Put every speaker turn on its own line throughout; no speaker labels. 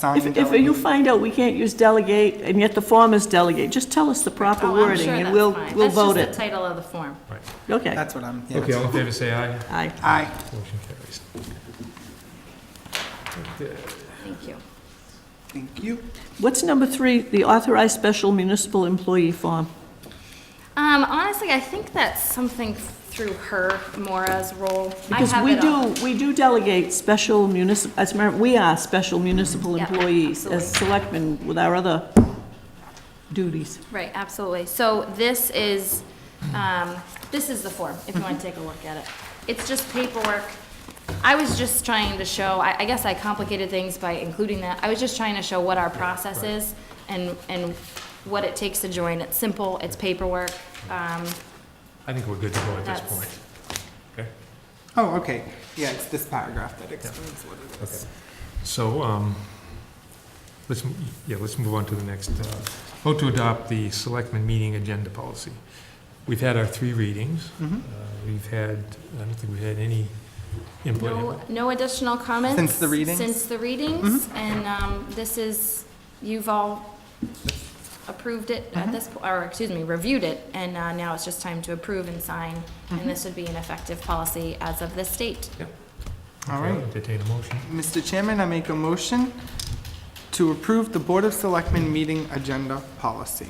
sign
If, if you find out we can't use delegate, and yet the form is delegate, just tell us the proper
Oh, I'm
wording,
sure
and
that's
we'll,
fine.
we'll vote
That's just
it.
the title of the form.
Okay,
That's what I'm, yeah.
Okay, all in favor, say aye.
aye.
Aye.
Motion carries.
Thank you.
Thank you.
What's number three, the authorized special municipal employee form?
Um, honestly, I think that's something through her, Mora's role. I
Because
have
we
it all.
do, we do delegate special municipal, as, a matter- we are special municipal
Yeah,
employees as
absolutely.
selectmen with our other duties.
Right, absolutely. So this is, um, this is the form, if you want to take a look at it. It's just paperwork. I was just trying to show, I, I guess I complicated things by including that. I was just trying to show what our process is and, and what it takes to join. It's simple, it's paperwork. Um,
I think we're good to go at this
That's-
point. Okay,
Oh, okay. Yeah, it's this paragraph that explains what it
okay.
is.
So, um, let's, m- yeah, let's move on to the next, uh, vote to adopt the selectmen meeting agenda policy. We've had our three readings. Uh,
Mhm.
We've had, I don't think we've had any input. in it.
No, no additional comments?
Since the readings? Mm-hmm.
Since the readings, and um, this is, you've all approved it
Mm-hmm.
at this, po- or, excuse me, reviewed it, and uh, now it's just time to approve and sign,
Mm-hmm.
and this would be an effective policy as of this date.
All
Okay,
right.
Entertain a motion.
Mr. Chairman, I make a motion to approve the Board of Selectmen meeting agenda policy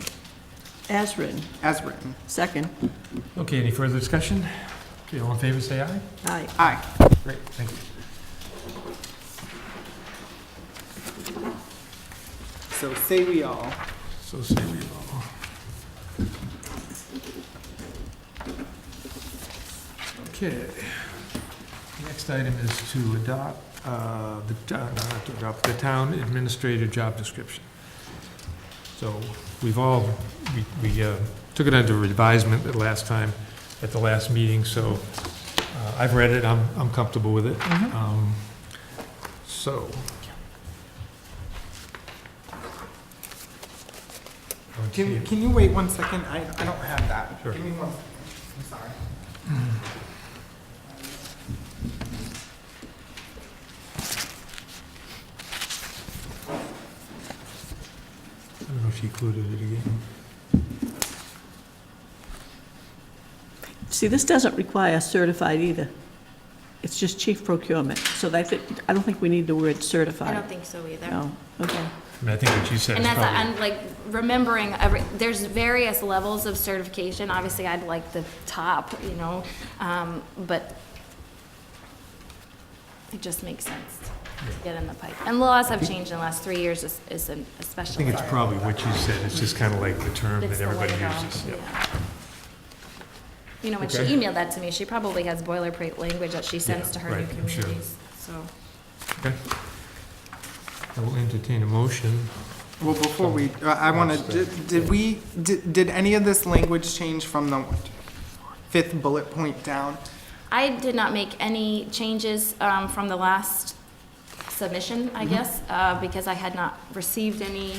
As written,
as written.
second,
Okay, any further discussion? Okay, all in favor, say aye.
aye.
Aye.
Great, thank you.
So say we all.
So say we all. Okay. Next item is to adopt, uh, the, t- uh, not to adopt, the town administrator job description. So we've all, we, we uh, took it under advisement the last time, at the last meeting, so uh, I've read it, I'm, I'm comfortable with it. Um, So. I don't see
Can,
it.
can you wait one second? I, I don't have that.
Sure.
Give me one second. I'm sorry.
I don't know if she included it again.
See, this doesn't require certified either. It's just chief procurement, so that's it. I don't think we need the word
I
certified.
don't think so either.
No, okay.
I mean, I think what you said
And
is
that's,
probably,
I'm like remembering every, there's various levels of certification. Obviously, I'd like the top, you know, um, but it just makes sense to get in the pipe. And laws have changed in the last three years, es- es-
I
especially.
think it's probably what you said, it's just kind of like the term
It's
that
the way
everybody
it all-
uses. yeah.
yeah. You know, when she
Okay.
emailed that to me, she probably has boilerplate language that she sends
Yeah,
to her new
right, I'm sure.
communities, so.
Okay. I will entertain a motion.
Well, before we, uh, I want to, did, did we, did, did any of this language change from the fifth bullet point down?
I did not make any changes um, from the last submission,
Mm-hmm.
I guess, uh, because I had not received any,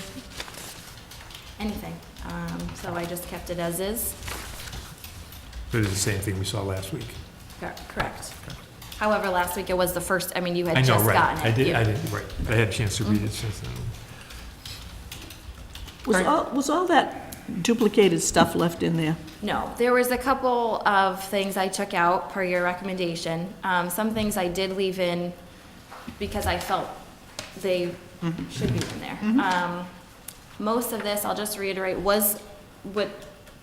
anything. Um, So I just kept it as is.
But it's the same thing we saw last week.
Cor- Correct. However, last week it was the first, I mean, you had
I know,
just gotten
right.
it.
I did,
You-
I did, right. I had a chance to read it since then.
Was
Right.
all, was all that duplicated stuff left in there?
No, there was a couple of things I took out per your recommendation. Um, Some things I did leave in because I felt they should be in there. Um, Most of this, I'll just reiterate, was what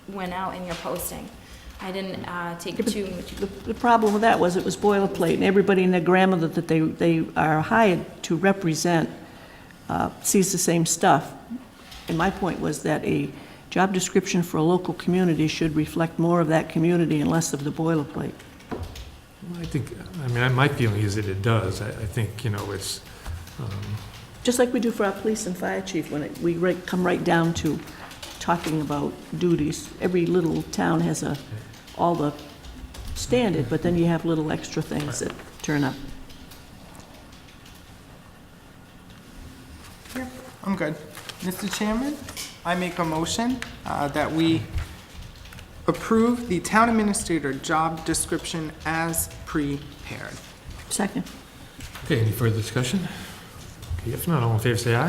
went out in your posting. I didn't uh, take too much.
The, the problem with that was it was boilerplate, and everybody and their grandmother that they, they are hired to represent uh, sees the same stuff. And my point was that a job description for a local community should reflect more of that community and less of the boilerplate.
Well, I think, I mean, my feeling is that it does. I, I think, you know, it's, um,
Just like we do for our police and fire chief, when it- we right- come right down to talking about duties. Every little town has a, all the standard, but then you have little extra things that turn up.
I'm good. Mr. Chairman, I make a motion uh, that we approve the town administrator job description as prepared.
Second.
okay, any further discussion? Okay, if not, all in favor, say aye.